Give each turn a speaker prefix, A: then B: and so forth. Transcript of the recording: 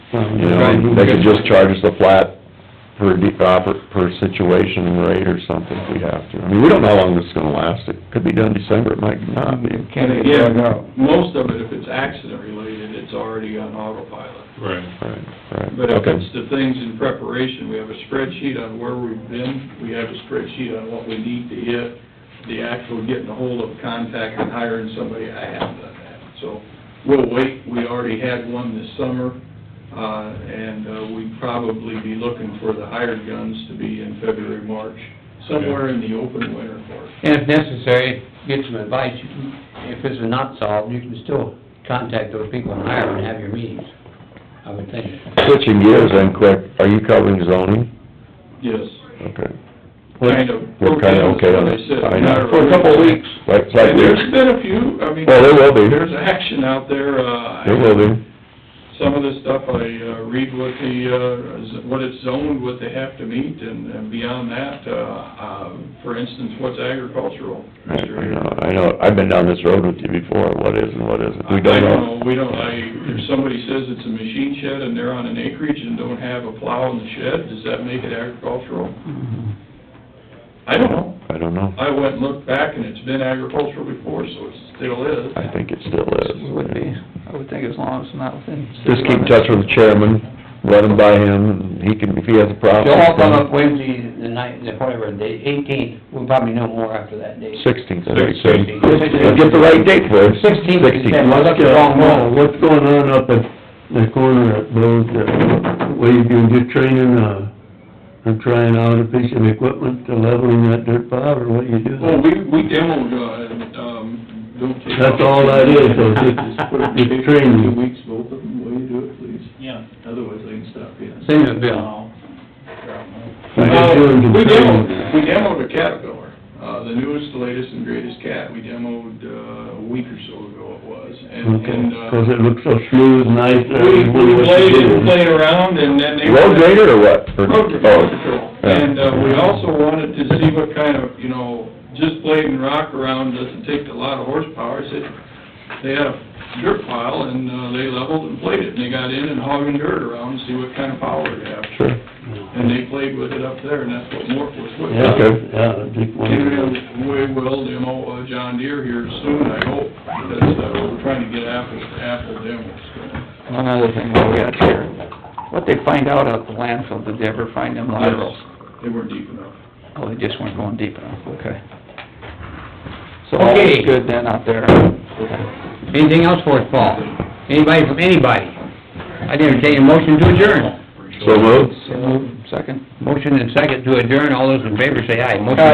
A: Um,
B: You know, they could just charge us a flat per de, uh, per, per situation rate or something if we have to. I mean, we don't know how long this is gonna last. It could be done December, it might not be.
C: Kind
A: And
C: of dug out.
A: again, most of it, if it's accident related, it's already on autopilot.
D: Right.
B: Right, right.
A: But if
B: Okay.
A: it's the things in preparation, we have a spreadsheet on where we've been, we have a spreadsheet on what we need to hit, the actual getting a hold of contact and hiring somebody, I haven't done that. So we'll wait, we already had one this summer, uh, and uh, we'd probably be looking for the hired guns to be in February, March, somewhere in the open winter for us.
C: And if necessary, get some advice. You can- If this is not solved, you can still contact those people and hire them and have your meetings, I would think.
B: Switching gears then quick, are you covering zoning?
A: Yes,
B: Okay.
A: kind of.
B: We're kinda okay on
A: Like I said,
B: it. I know.
A: not-
B: Like, it's like
A: And
B: there's,
A: there's been a few, I mean,
B: well, there will be,
A: there's action out there, uh,
B: there will be.
A: some of the stuff I uh, read what the, uh, z- what it's zoned, what they have to meet, and and beyond that, uh, um, for instance, what's agricultural?
B: I
A: Mr.
B: I know, I know, I've been down this road with you before, what is and what isn't,
A: I-
B: we don't
A: I
B: know.
A: We don't, I, if somebody says it's a machine shed and they're on an acreage and don't have a plow in the shed, does that make it agricultural?
E: Mm-hmm.
A: I don't know.
B: I don't know,
A: I went and looked back and it's been agricultural before, so it still is.
B: I think it still is.
E: It would be, I would think as long as it's not within. city
B: Just keep in
E: limits.
B: touch with the chairman, let him by him, and he can, if he has a problem.
C: They'll all come up Wednesday, the night, the whatever, the eighteenth, we'll probably know more after that date.
B: Sixteenth, I think.
D: Sixteenth.
B: Let's Get the right date for it.
C: 16th is
B: Sixteenth.
C: that one. Look at the wrong one.
F: What's going on up at the corner at those, uh, what you do, just training, uh, or trying out a piece of equipment to leveling that dirt pile, or what you do?
A: Well, we, we demoed, uh, and, um, don't take.
F: That's all that is, so just- just training.
A: Two weeks, both of them, will you do it, please?
E: Yeah.
A: Otherwise, they can stop you.
C: Send them a bill.
F: We just doing some
A: We
F: training.
A: demoed, we demoed a Caterpillar, uh, the newest, latest and greatest cat, we demoed, uh, a week or so ago it was, and,
F: Okay,
A: and,
F: 'cause
A: uh,
F: it looks so smooth, nice, I
A: we,
F: was
A: we
F: wondering what
A: played
F: you
A: and
F: did.
A: played around, and then they.
B: Road grader or what? Or-
A: Road
B: oh,
A: control.
B: yeah.
A: And, uh, we also wanted to see what kind of, you know, just blading rock around doesn't take a lot of horsepower, I said, they had a dirt pile, and, uh, they leveled and played it, and they got in and hogging dirt around, to see what kind of power it had.
B: Sure,
A: And they played with it up there, and that's what Mort was with.
F: Yeah,
B: Okay.
F: yeah, I just wondered.
A: And we will demo uh, John Deere here soon, I hope, because, uh, we're trying to get apple, apple demos going.
E: One other thing while we got here, what they find out at the landfill, did they ever find them laterals?
A: They weren't deep enough.
E: Oh, they just weren't going deep enough, okay. So all
C: Okay.
E: is good then out there.
C: Anything else for us, Paul? Anybody from anybody? I would entertain a motion to adjourn.
B: so moved.
E: So, Second?
C: Motion and second to adjourn, all those in favor say aye. Motion